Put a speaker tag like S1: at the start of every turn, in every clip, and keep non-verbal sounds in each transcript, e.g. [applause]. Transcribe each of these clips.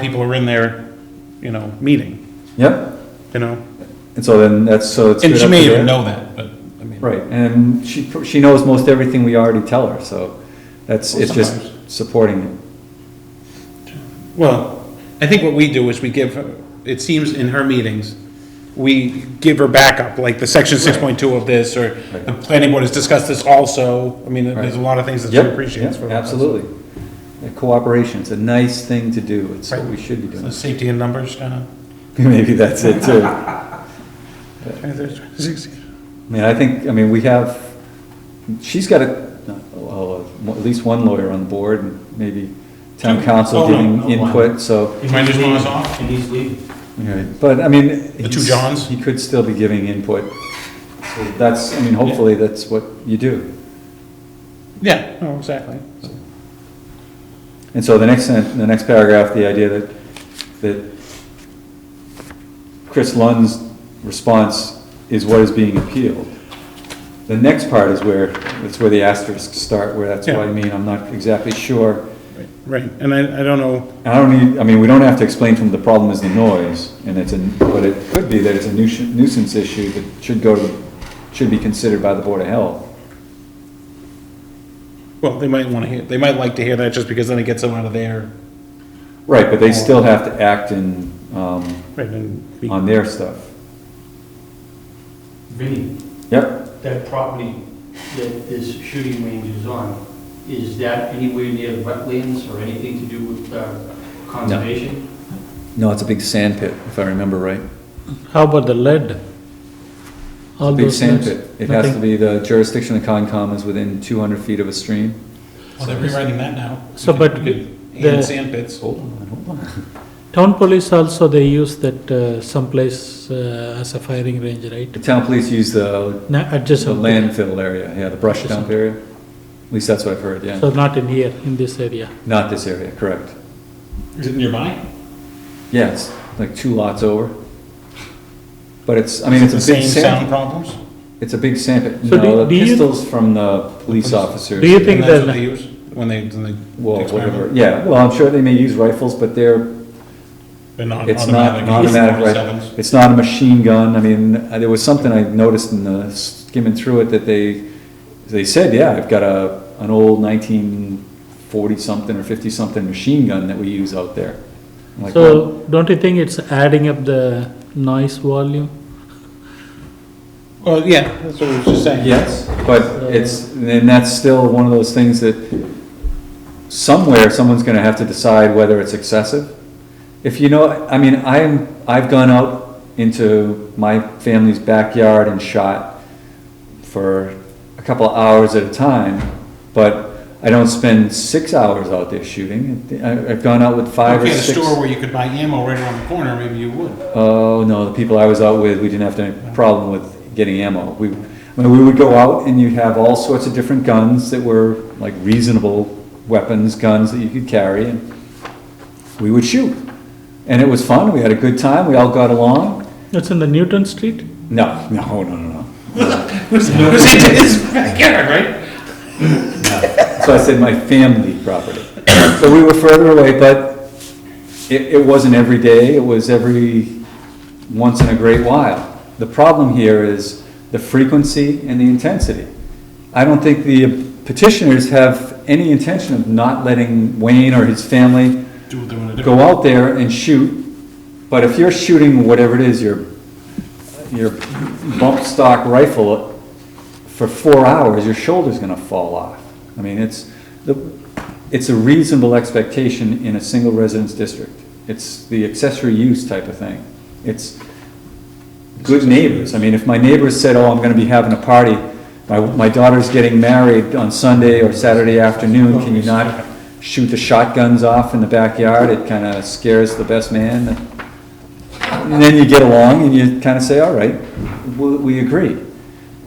S1: people are in there, you know, meeting,
S2: Yep,
S1: you know?
S2: and so then that's, so it's.
S1: And
S2: good
S1: she
S2: up
S1: may
S2: to
S1: even
S2: there.
S1: know that, but, I mean.
S2: Right, and she, pr- she knows most everything we already tell her, so that's,
S1: Well,
S2: it's just
S1: sometimes.
S2: supporting it.
S1: Well, I think what we do is we give, her- it seems in her meetings, we give her backup, like the section six point two of this, or the
S2: Right.
S1: planning board has discussed this also. I mean, there's a
S2: Right.
S1: lot of things that she
S2: Yep,
S1: appreciates.
S2: yep,
S1: from us.
S2: Absolutely. And Cooperation, it's a nice thing to do, it's what we should be
S1: So
S2: doing. [laughs]
S1: Safety in numbers, kind of.
S2: Maybe that's it too. I mean, I think, I mean, we have, she's got a, oh, uh, at least one lawyer on board, and maybe town
S1: Two.
S2: council
S1: Oh, no,
S2: giving
S3: no, one.
S2: input, so.
S1: Mine just went off.
S3: And he's leaving.
S2: Right, but I mean.
S1: The two
S2: he's-
S1: Johns?
S2: He could still be giving input. So That's, I mean, hopefully that's what you do.
S1: Yeah, no, exactly.
S2: And so the next, sen- the next paragraph, the idea that, that Chris Lund's response is what is being appealed. The next part is where, that's where the asterisks start, where that's what I
S1: Yeah.
S2: mean, I'm not exactly sure.
S1: Right, and I, I don't know,
S2: I don't need, I mean, we don't have to explain to them the problem is the noise, and it's a, but it could be that it's a nuisance nuisance issue that should go to, should be considered by the Board of Health.
S1: well, they might want to hear, they might like to hear that just because then it gets them out of there.
S2: Right, but they still have to act in, um,
S1: Right, and be-
S2: on their stuff.
S3: Vinnie,
S2: Yep,
S3: that property that this shooting range is on, is that anywhere near wetlands or anything to do with uh, conservation?
S2: no, it's a big sand pit, if I remember right.
S4: How about the lead? All
S2: Big
S4: those
S2: sand
S4: leads?
S2: pit. It has to
S4: Nothing.
S2: be, the jurisdiction of Concom is within two hundred feet of a stream.
S1: well, they're rewriting that now.
S4: So,
S1: You could-
S4: but
S1: you could
S4: the-
S1: add Sand pits.
S2: Hold on, hold on.
S4: Town police also, they use that uh, someplace uh, as a firing range, right?
S2: The town police use the,
S4: Na-
S2: the
S4: Adjacent.
S2: landfill area, yeah, the brush dump area. At least that's what I've heard, yeah.
S4: So not in here, in this area.
S2: Not this area, correct.
S1: Is it nearby?
S2: Yes, like two lots over. But it's, I mean, it's
S1: The
S2: a big
S1: same sound
S2: sand,
S1: problems?
S2: it's a big sand pit.
S4: So do-
S2: No, the
S4: do you-
S2: pistols from the police
S4: Do you
S2: officers,
S1: And
S4: think
S1: that's what they
S4: that,
S1: use when they, when they.
S2: well,
S1: experiment?
S2: whatever, yeah, well, I'm sure they may use rifles, but they're,
S1: They're not
S2: it's not an automatic rifle. It's not a machine gun, I mean, uh, there was something I noticed in the skimming through it that they, they said, yeah, I've got a, an old nineteen forty-something or fifty-something machine gun that we use out there. I'm like, well,
S4: so don't you think it's adding up the noise volume?
S1: Well, yeah, that's what I was just saying.
S2: Yes, but it's, and that's still one of those things that somewhere, someone's gonna have to decide whether it's excessive. If you know, I mean, I'm, I've gone out into my family's backyard and shot for a couple hours at a time, but I don't spend six hours out there shooting. I- I've gone out with five or
S1: Okay, the
S2: six.
S1: store where you could buy ammo right around the corner, maybe you [laughs] would.
S2: Oh, no, the people I was out with, we didn't have any problem with getting ammo. We, I mean, we would go out and you have all sorts of different guns that were like reasonable weapons, guns that you could carry, and we would shoot. And it was fun, we had a good time, we all got along.
S4: It's in the Newton Street?
S2: No, [laughs] no, no, no, no.
S1: Who's, [laughs] who's into his backyard, right?
S2: So I said my family property. So we were further away, but it, it wasn't every day, it was every once in a great while. The problem here is the frequency and the intensity. I don't think the petitioners have any intention of not letting Wayne or his family
S1: Do what they wanna do.
S2: go out there and shoot, but if you're shooting whatever it is, your, your bump stock rifle for four hours, your shoulder's gonna fall off. I mean, it's, the, it's a reasonable expectation in a single residence district. It's the accessory use type of thing. It's good neighbors. I mean, if my neighbors said, oh, I'm gonna be having a party, my, my daughter's getting married on Sunday or Saturday afternoon, can you not shoot the shotguns off in the backyard? It kinda scares the best man. And then you get along and you kind of say, all right, we, we agree.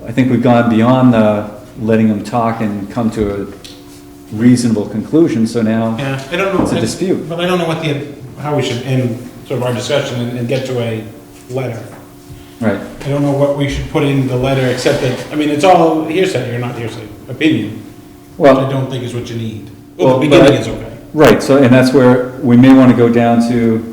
S2: I think we've gone beyond the letting them talk and come to a reasonable conclusion, so now,
S1: Yeah, I don't know.
S2: It's a
S1: I-
S2: dispute.
S1: But I don't know what the, how we should end sort of our discussion and, and get to a letter.
S2: right,
S1: I don't know what we should put in the letter, except that, I mean, it's all hearsay, or not hearsay, opinion, which I
S2: well,
S1: don't think is what you need.
S2: Well,
S1: Well, the
S2: but
S1: beginning
S2: I-
S1: is okay.
S2: Right, so, and that's where we may want to go down to